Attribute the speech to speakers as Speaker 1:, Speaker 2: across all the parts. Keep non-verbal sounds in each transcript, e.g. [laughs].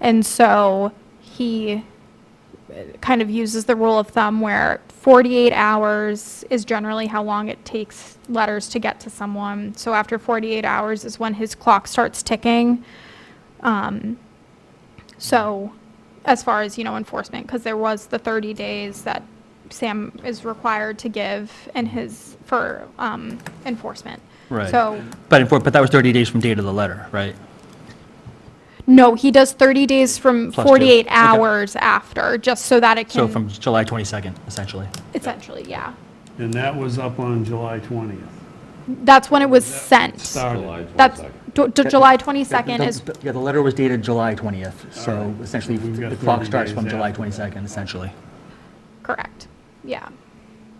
Speaker 1: And so he uh, kind of uses the rule of thumb where 48 hours is generally how long it takes letters to get to someone. So after 48 hours is when his clock starts ticking. Um, so as far as, you know, enforcement, because there was the 30 days that Sam is required to give in his, for um, enforcement.
Speaker 2: Right.
Speaker 1: So
Speaker 2: But, in- but that was 30 days from date of the letter, right?
Speaker 1: No, he does 30 days from
Speaker 2: Plus two.
Speaker 1: 48
Speaker 2: Okay.
Speaker 1: hours after, just so that it
Speaker 2: So from
Speaker 1: can,
Speaker 2: July 22nd, essentially.
Speaker 1: essentially, yeah.
Speaker 3: And that was up on July 20th.
Speaker 1: That's when it was sent.
Speaker 3: Started.
Speaker 1: That's, d- d- July
Speaker 2: The-
Speaker 1: 22nd is,
Speaker 2: the- Yeah, the letter was dated July 20th, so
Speaker 3: Alright.
Speaker 2: essentially
Speaker 3: We've got
Speaker 2: the clock
Speaker 3: 30
Speaker 2: starts
Speaker 3: days
Speaker 2: from July
Speaker 3: after that.
Speaker 2: 22nd, essentially.
Speaker 1: correct, yeah.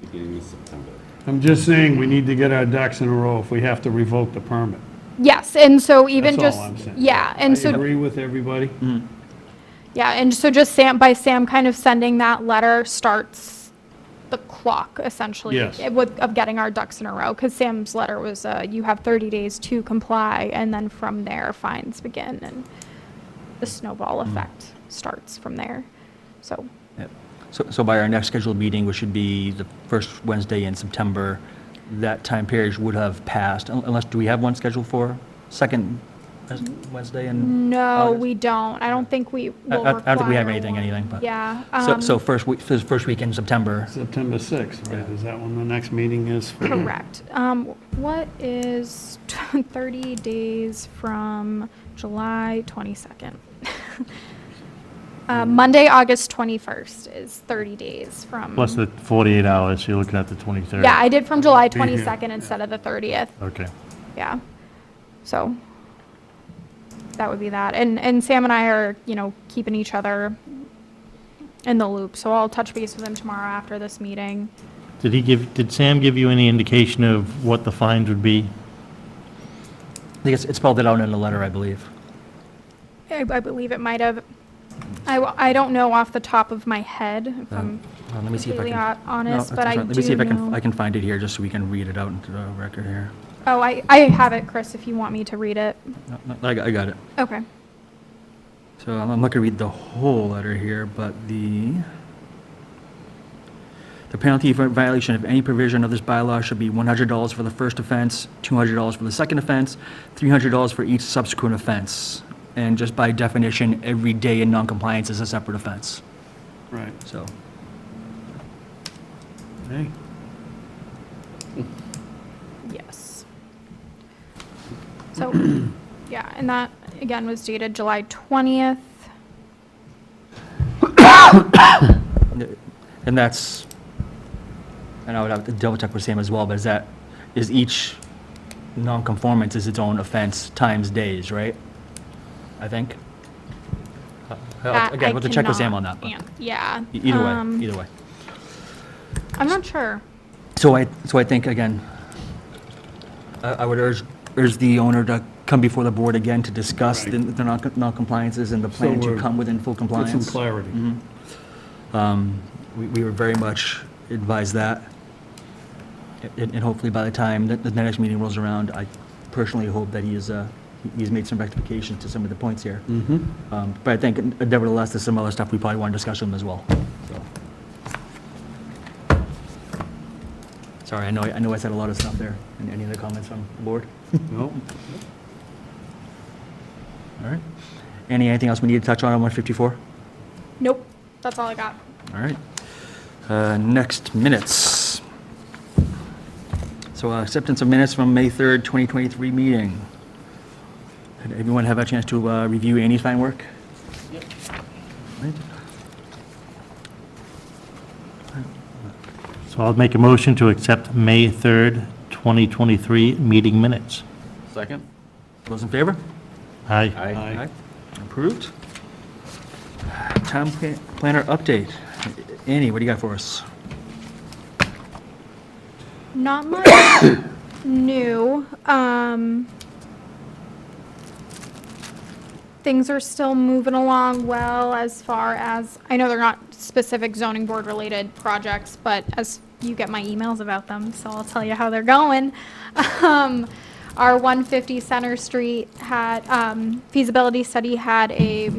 Speaker 4: beginning of September.
Speaker 3: I'm just saying, we need to get our ducks in a row if we have to revoke the permit.
Speaker 1: Yes, and so even
Speaker 3: That's
Speaker 1: just,
Speaker 3: all I'm saying.
Speaker 1: yeah, and so.
Speaker 3: I agree with everybody.
Speaker 1: Yeah, and so just Sam, by Sam kind of sending that letter starts the clock essentially.
Speaker 3: Yes.
Speaker 1: eh, With, of getting our ducks in a row, because Sam's letter was, uh, you have 30 days to comply, and then from there fines begin, and the snowball
Speaker 2: Mm.
Speaker 1: effect starts from there. So,
Speaker 2: Yep. So, so by our next scheduled meeting, which should be the first Wednesday in September, that time period would have passed, un- unless, do we have one scheduled for second Wednesday in?
Speaker 1: no,
Speaker 2: August?
Speaker 1: we don't, I don't think we
Speaker 2: I-
Speaker 1: will
Speaker 2: I- I don't think we have
Speaker 1: require
Speaker 2: anything-
Speaker 1: one.
Speaker 2: anything, but-
Speaker 1: Yeah.
Speaker 2: So,
Speaker 1: um,
Speaker 2: so first week, first first week in September.
Speaker 3: September 6th, right? Is that when the next meeting is? for you?
Speaker 1: Correct. Um, what is [laughs] 30 days from July 22nd? [laughs] Uh, Monday, August 21st is 30 days from.
Speaker 5: Plus the 48 hours, you're looking at the 23rd.
Speaker 1: Yeah, I did from July
Speaker 3: Be here.
Speaker 1: 22nd instead of the 30th.
Speaker 5: Okay.
Speaker 1: Yeah. So that would be that. And, and Sam and I are, you know, keeping each other in the loop. So I'll touch base with him tomorrow after this meeting.
Speaker 5: Did he give, did Sam give you any indication of what the fines would be?
Speaker 2: I think it's- it's spelled it out in the letter, I believe.
Speaker 1: I, I believe it might have, I, w- I don't know off the top of my head, if I'm
Speaker 2: Uh, Let me see if I
Speaker 1: completely
Speaker 2: can.
Speaker 1: hon-
Speaker 2: No,
Speaker 1: honest,
Speaker 2: that's-
Speaker 1: but
Speaker 2: that's
Speaker 1: I
Speaker 2: right. Let me see
Speaker 1: do
Speaker 2: if I can, I
Speaker 1: know.
Speaker 2: can find it here, just so we can read it out into the record here.
Speaker 1: Oh, I, I have it, Chris, if you want me to read it.
Speaker 2: No, no, I, got- I got it.
Speaker 1: Okay.
Speaker 2: So I'm I'm not going to read the whole letter here, but the, the penalty for violation of any provision of this bylaw should be $100 for the first offense, $200 for the second offense, $300 for each subsequent offense. And just by definition, every day in noncompliance is a separate offense,
Speaker 3: Right.
Speaker 2: so.
Speaker 3: Hey,
Speaker 1: Yes. So, [clears throat] yeah, and that, again, was dated July 20th.
Speaker 2: And that's, and I would have to double check with Sam as well, but is that, is each nonconformance is its own offense times days, right? I think? Uh,
Speaker 1: That I
Speaker 2: Again, we'll have to check with Sam on
Speaker 1: cannot
Speaker 2: that, but
Speaker 1: an- Yeah.
Speaker 2: e- either
Speaker 1: um,
Speaker 2: way, either way.
Speaker 1: I'm not sure.
Speaker 2: So I, so I think, again, I, I would urge, urge the owner to come befefore the board again to discuss the, the non- non-compliances and the plan to
Speaker 3: we're-
Speaker 2: come within full
Speaker 3: Get
Speaker 2: compliance.
Speaker 3: some clarity.
Speaker 2: Um, We we would very much advise that. And and hopefully by the time that the next meeting rolls around, I personally hope that he is, uh, he's made some rectifications to some of the points here. Um, But I think nevertheless, there's some other stuff we probably want to discuss with him as well. so. Sorry, I know, I know I said a lot of stuff there. Any- Any other comments from the board?
Speaker 3: Nope.
Speaker 2: All right. Any, anything else we need to touch on on 154?
Speaker 1: Nope, that's all I got.
Speaker 2: All right. Uh, Next, minutes. So uh, acceptance of minutes from May 3rd, 2023 meeting. Did everyone have a chance to uh, review Annie's fine work? Yep.
Speaker 5: So I'll make a motion to accept May 3rd, 2023 meeting minutes.
Speaker 4: Second?
Speaker 2: Those in favor?
Speaker 5: Aye.
Speaker 4: Aye.
Speaker 2: Approved. Town pla- planner update. Annie, what do you got for us?
Speaker 1: Not much new. Um, things are still moving along well as far as, I know they're not specific zoning board related projects, but as you get my emails about them, so I'll tell you how they're going. [laughs] Um, our 150 Center Street had, um, feasibility study had a